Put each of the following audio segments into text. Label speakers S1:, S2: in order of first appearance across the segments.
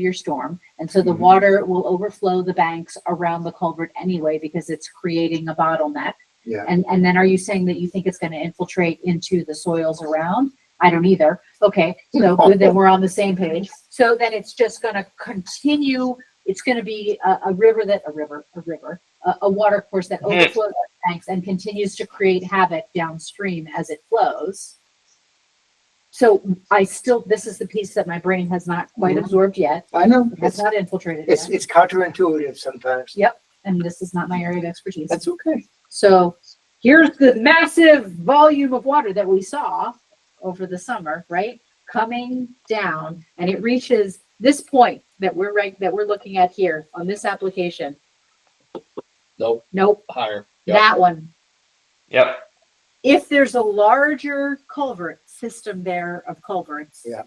S1: your storm. And so the water will overflow the banks around the culvert anyway because it's creating a bottleneck.
S2: Yeah.
S1: And, and then are you saying that you think it's gonna infiltrate into the soils around? I don't either. Okay, so good, then we're on the same page. So then it's just gonna continue, it's gonna be a, a river that, a river, a river, a, a water course that overflows our banks and continues to create havoc downstream as it flows. So I still, this is the piece that my brain has not quite
S2: Mhm.
S1: absorbed yet.
S2: I know,
S1: That's
S2: it's,
S1: not infiltrated
S2: it's,
S1: yet,
S2: it's counterintuitive sometimes.
S1: and this is not my area of expertise.
S2: That's okay.
S1: So here's the massive volume of water that we saw over the summer, right? Coming down and it reaches this point that we're right, that we're looking at here on this application.
S3: Nope.
S1: Nope,
S3: higher. Yep.
S1: that one.
S3: Yep.
S1: If there's a larger culvert system there of culverts.
S2: Yeah.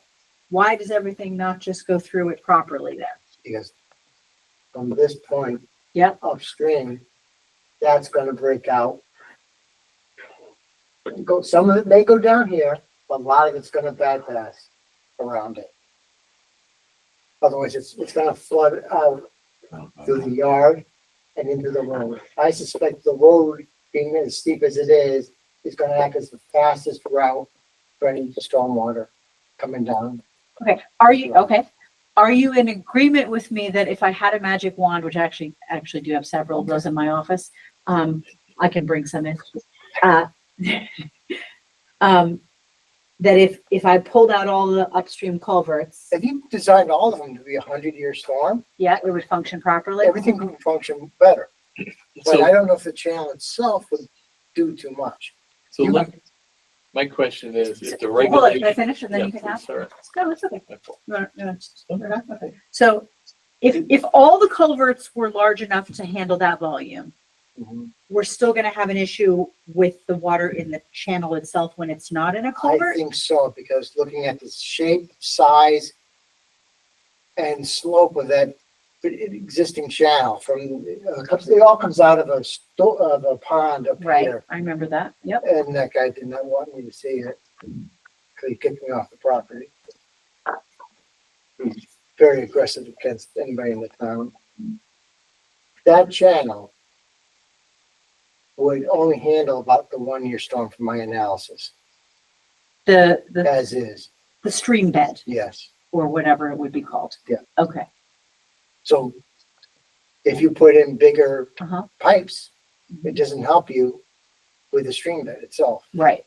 S1: Why does everything not just go through it properly there?
S2: Because from this point
S1: Yep.
S2: upstream, that's gonna break out. Go, some of it may go down here, but a lot of it's gonna bypass around it. Otherwise, it's, it's gonna flood out through the yard and into the road. I suspect the road, being as steep as it is, is gonna act as the fastest route for any stormwater coming down.
S1: Okay, are you,
S2: Yeah.
S1: okay, are you in agreement with me that if I had a magic wand, which I actually, actually do have several of those in my office, um, I can bring some in. uh, Um, that if, if I pulled out all the upstream culverts,
S2: If you designed all of them to be a hundred-year storm,
S1: yeah, it would function properly?
S2: everything would function better. But I
S3: So,
S2: don't know if the channel itself would do too much.
S3: so
S1: you-
S3: let, my question is, if the
S1: Well, if I
S3: regulation.
S1: finish and then you
S3: Yeah,
S1: can ask.
S3: sorry.
S1: No, it's okay.
S3: My fault.
S1: No, no, no. So if, if all the culverts were large enough to handle that volume,
S2: Mm-hmm.
S1: we're still gonna have an issue with the water in the channel itself when it's not in a
S2: I
S1: culvert?
S2: think so, because looking at the shape, size, and slope of that existing channel from, uh, comes- it all comes out of a sto, of a pond up
S1: Right,
S2: here.
S1: I remember that, yep.
S2: And that guy did not want me to see it, because he kicked me off the property. He's Very aggressive against anybody in the town. That channel would only handle about the one-year storm from my analysis,
S1: The, the,
S2: as is,
S1: the stream bed
S2: yes.
S1: or whatever it would be called.
S2: Yeah.
S1: Okay,
S2: So if you put in bigger
S1: uh-huh,
S2: pipes, it doesn't help you with the stream bed itself.
S1: right.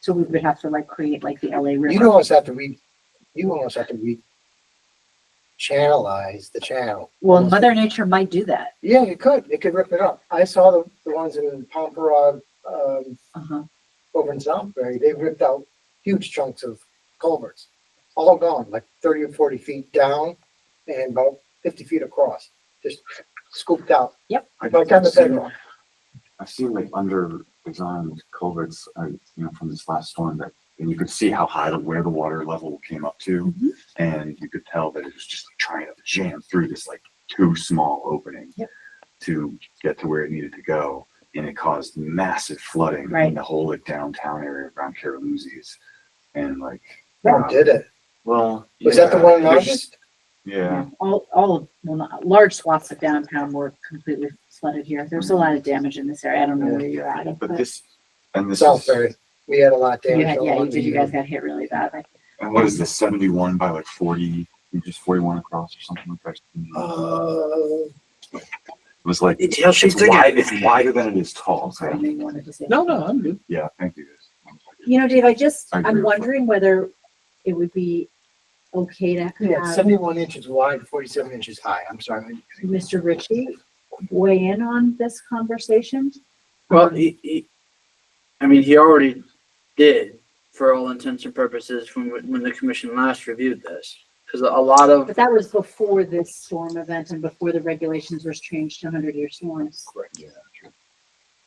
S1: So we would have to like create like the LA
S2: You'd
S1: River.
S2: almost have to re, you almost have to re channelize the channel.
S1: Well, Mother Nature might do that,
S2: Yeah, you could, it could rip it up. I saw the, the ones in Pomperod, um,
S1: uh-huh.
S2: over in Southbury, they ripped out huge chunks of culverts. All gone, like thirty or forty feet down and about fifty feet across, just scooped out,
S4: I
S2: like on the bedrock.
S4: I've seen like under examined culverts, uh, you know, from this last storm that, and you could see how high the, where the water level came up to.
S2: Mm-hmm.
S1: Mhm.
S4: And you could tell that it was just like trying to jam through this like too small opening.
S1: Yep.
S4: To get to where it needed to go. And it caused massive flooding
S1: Right.
S4: in the whole like downtown area around Caroluzzi's. And like.
S2: Who did it?
S4: Well.
S2: Was that the
S4: yeah,
S2: one in
S4: there's-
S2: August?
S4: Yeah,
S1: All, all of, well, not, large swaths of downtown were completely flooded here. There's a lot of damage in this area. I don't know where you're at.
S4: but this, and this. is-
S2: Southbury, we had a lot
S1: You
S2: there.
S1: had- Yeah, you did, you guys got hit really bad. I
S4: And what is this, seventy-one by like forty, just forty-one across or something like that?
S2: Uh,
S4: It was like,
S5: Detail
S4: it's wide, it's wider than it is tall, so,
S1: Sorry, maybe wanted to say.
S3: No, no, I'm good.
S4: yeah, thank you.
S1: You know, Dave, I just,
S4: I
S1: I'm
S4: agree with that.
S1: wondering whether it would be okay to
S2: yeah, it's
S1: have
S2: seventy-one inches wide, forty-seven inches high, I'm sorry.
S1: Mr. Ritchie weigh in on this conversation?
S5: Well, he, he, I mean, he already did for all intents and purposes from when when the commission last reviewed this. Cause a lot of,
S1: But that was before this storm event and before the regulations were changed to hundred year storms.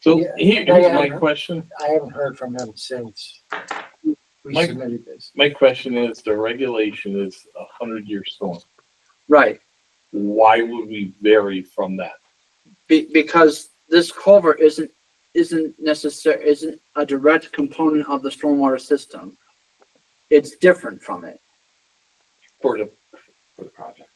S3: So
S2: Yeah.
S3: here-
S2: Yeah,
S3: here's
S2: yeah,
S3: my
S2: yeah.
S3: question.
S2: I haven't heard from him since we
S3: Mike?
S2: submitted this.
S3: My question is, the regulation is a hundred year storm.
S5: right,
S3: Why would we vary from that?
S5: be, because this culvert isn't, isn't necessar, isn't a direct component of the stormwater system. It's different from it.
S3: For the,
S4: For the project.